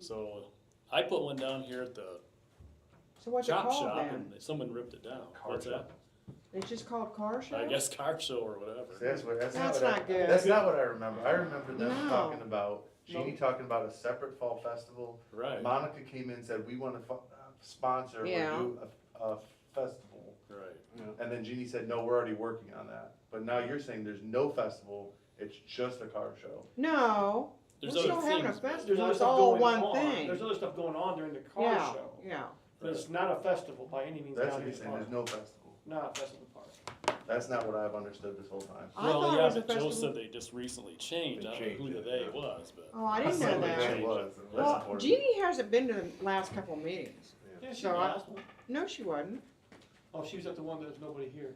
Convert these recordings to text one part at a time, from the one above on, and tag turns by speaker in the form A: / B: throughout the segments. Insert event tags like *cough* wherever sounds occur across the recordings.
A: So I put one down here at the
B: So what's it
A: chop
B: called
A: shop
B: then?
A: and someone ripped it down.
C: Car
A: What's
C: shop.
B: It's just called car
A: that? I
B: show?
A: guess car show or
C: See,
A: whatever.
C: That's what, that's not
B: That's
C: what I,
B: not good.
C: that's not what I remember. I remember them
B: No.
C: talking about, Jeannie talking about a separate fall festival.
A: Right, right.
C: Monica came in and said, we wanna fu- uh, sponsor or
B: Yeah.
C: do a, a festival. And then Jeannie said, no, we're already working on that. But now you're saying there's no festival, it's just a car show.
B: No, we're
A: There's
B: still
A: other
B: having a
A: things.
D: There's
B: festival,
D: other
B: it's
D: stuff
B: all
D: going
B: one
D: on.
B: thing.
D: There's other stuff going on during the car
B: Yeah,
D: show.
B: yeah.
D: But it's not a festival by any means
C: That's
D: down
C: what you're
D: here in the
C: saying,
D: park.
C: there's no festival.
D: Not a festival park.
C: That's not what I've understood this whole time.
B: I thought
A: Well,
B: it
A: yeah,
B: was a
A: but Joe
B: festival.
A: said they just recently changed.
E: They
A: I don't know who
E: changed
A: the
E: it,
A: they
E: yeah.
A: was, but.
B: Oh, I didn't know
C: Something
B: that.
C: it was, that's
B: Well,
C: important.
B: Jeannie hasn't been to the last couple of meetings.
D: Yeah, she
B: So I-
D: asked me.
B: No, she wasn't.
D: Oh, she was at the one that was nobody here.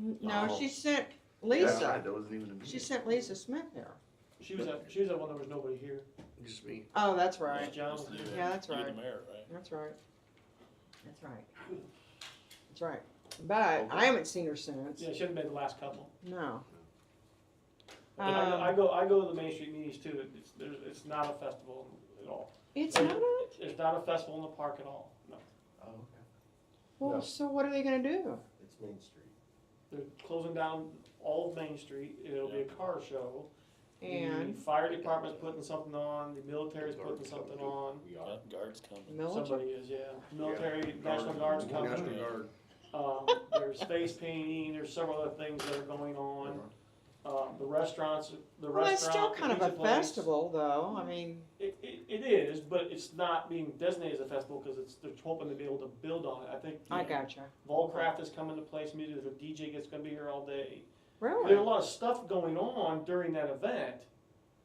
B: N- No,
C: Oh.
B: she sent
C: That's right,
B: Lisa,
C: That wasn't even a meeting.
B: she sent Lisa Smith there.
D: She was at, she was at one that was nobody here.
E: Just me.
B: Oh, that's
D: Miss
B: right,
D: Jones.
A: Just you and-
B: Yeah, that's
A: you and
B: right.
A: the mayor, right?
B: that's right. That's right. That's right. But I haven't seen her since,
D: Yeah, she hasn't been the last couple.
B: no.
D: And I, I
B: Um,
D: go, I go to the Main Street meetings too. It- It's, there's, it's not a festival at all.
B: It's not a,
D: It's- It's not a festival in the park at all. No.
C: Oh, okay. No.
B: well, so what are they gonna do?
E: It's Main Street.
D: They're closing down all of Main Street. It'll be a car show. The
B: And
D: fire department's putting something on, the military's putting
E: Guards
D: something
E: coming.
D: on.
E: We
A: Yeah,
E: are.
A: Guards coming.
B: military,
D: Somebody is, yeah. Military, National Guard's coming.
E: National Guard.
D: Um, there's face painting, there's several other things that are going on. Um, the restaurants, the
B: well, that's still
D: restaurant, the
B: kind of a
D: pizza place.
B: festival though, I mean,
D: It, it, it is, but it's not being designated as a festival because it's, they're hoping to be able to build on it. I think.
B: I gotcha,
D: Volcraft is coming to place, maybe there's a DJ that's gonna be here all day. There's a
B: really?
D: lot of stuff going on during that event,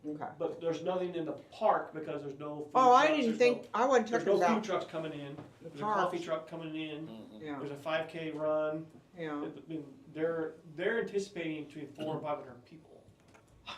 B: Okay.
D: but there's nothing in the park because there's no. food
B: Oh, I
D: trucks,
B: didn't
D: there's no-
B: think, I wasn't
D: There's
B: talking
D: no food
B: about
D: trucks coming in,
B: the
D: there's a coffee
B: parks,
D: truck coming in,
A: Mhm.
B: yeah,
D: there's a five K run.
B: yeah.
D: It- it- They're, they're anticipating between four and five hundred people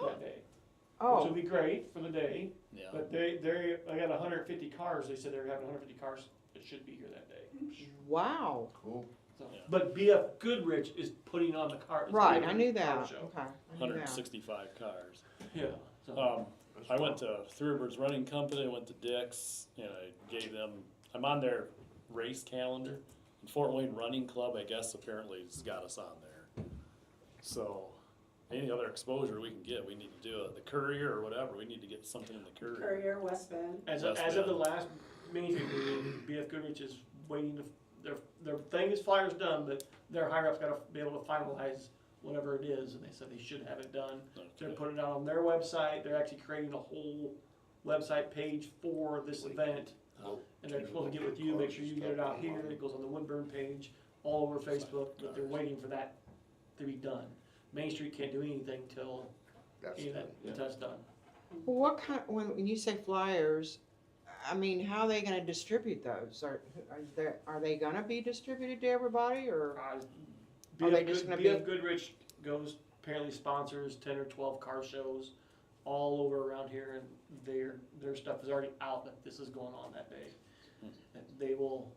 D: that day, which will
B: Oh,
D: be great for the day,
A: Yeah.
D: but they, they, I got hundred and fifty cars, they said they were having hundred and fifty cars that should be here that day.
B: wow,
C: Cool.
D: So-
A: Yeah.
D: But BF Goodrich is putting on the car. it's
B: right,
D: their
B: I knew
D: car
B: that,
D: show.
B: okay, I knew
A: Hundred and
B: that.
A: sixty-five cars.
D: Yeah, so,
A: Um, I went to Three Rivers Running Company, I went to Dick's, and I gave them, I'm on their race calendar. And Fort Wayne Running Club, I guess, apparently has got us on there. So, any other exposure we can get, we need to do it. The Courier or whatever, we need to get something in the Courier.
F: Courier, West Bend.
D: as, of-
A: that's
D: as of the
A: bad.
D: last Main Street meeting, BF Goodrich is waiting to, their, their thing is flyers done, but their higher up's gotta be able to finalize whatever it is, and they said they should have it done They're
A: Okay.
D: putting it out on their website. They're actually creating a whole website page for this event. And they're supposed to get with you, make sure you get it out here. It goes on the Woodburn page, all over Facebook, but they're waiting for that to be done. Main Street can't do anything till any of that, that's done.
B: Well, What kind, when, when you say flyers, I mean, how are they gonna distribute those? Are, are they, are they gonna be distributed to everybody or?
D: Uh,
B: Are they
D: BF
B: just
D: Good-
B: gonna
D: BF
B: be-
D: Goodrich goes, apparently sponsors ten or twelve car shows all over around here and their, their stuff is already out that this is going on that day. And They will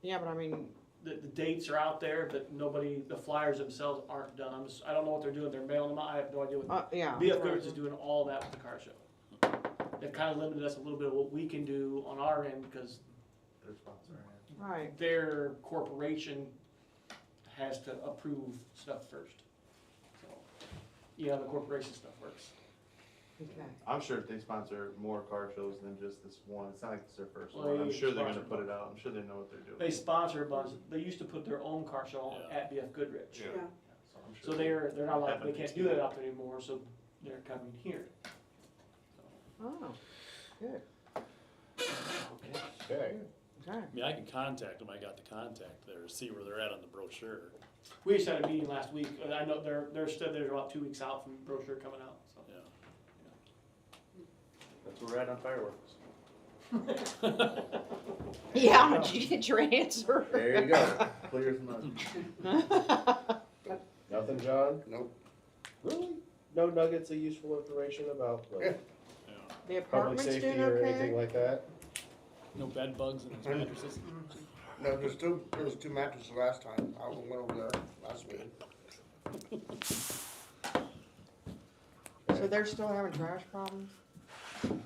B: Yeah, but I mean,
D: the, the dates are out there, but nobody, the flyers themselves aren't done. I'm just, I don't know what they're doing. They're mailing them out. I have no idea what.
B: uh, yeah.
D: BF Goodrich is doing all that with the car show. They've kind of limited us a little bit of what we can do on our end because
C: They're sponsoring it.
B: Right,
D: their corporation has to approve stuff first. So, yeah, the corporation stuff works.
B: okay.
C: I'm sure if they sponsor more car shows than just this one, it's not like it's their first
D: Well,
C: one. I'm
D: they
C: sure they're gonna
D: sponsor
C: put it out. I'm sure they know what they're doing.
D: They sponsor a bunch. They used to put their own car show on
A: Yeah.
D: at BF Goodrich.
E: Yeah.
C: So I'm
D: So
C: sure they-
D: they're, they're not allowed, they can't do that out there anymore, so they're coming here.
B: Oh, good,
D: Okay.
E: Okay.
B: okay.
A: I mean, I can contact them, I got the contact there, see where they're at on the brochure.
D: We just had a meeting last week, and I know they're, they're still, they're about two weeks out from brochure coming out, so.
C: That's where we're at on fireworks.
B: *laughs* Yeah, did you get your answer?
E: There you go.
C: *laughs* Clear as mud.
B: *laughs*
E: Nothing, John? Nope.
G: Really? No nuggets of useful information about like
A: Yeah.
B: The
G: public
B: apartment's
G: safety
B: doing
G: or anything
B: okay?
G: like that?
A: No bed bugs
C: *laughs*
A: in his mattresses?
H: No, there's two, there was two mattresses last time, I went over there last week.
B: So they're still having trash problems?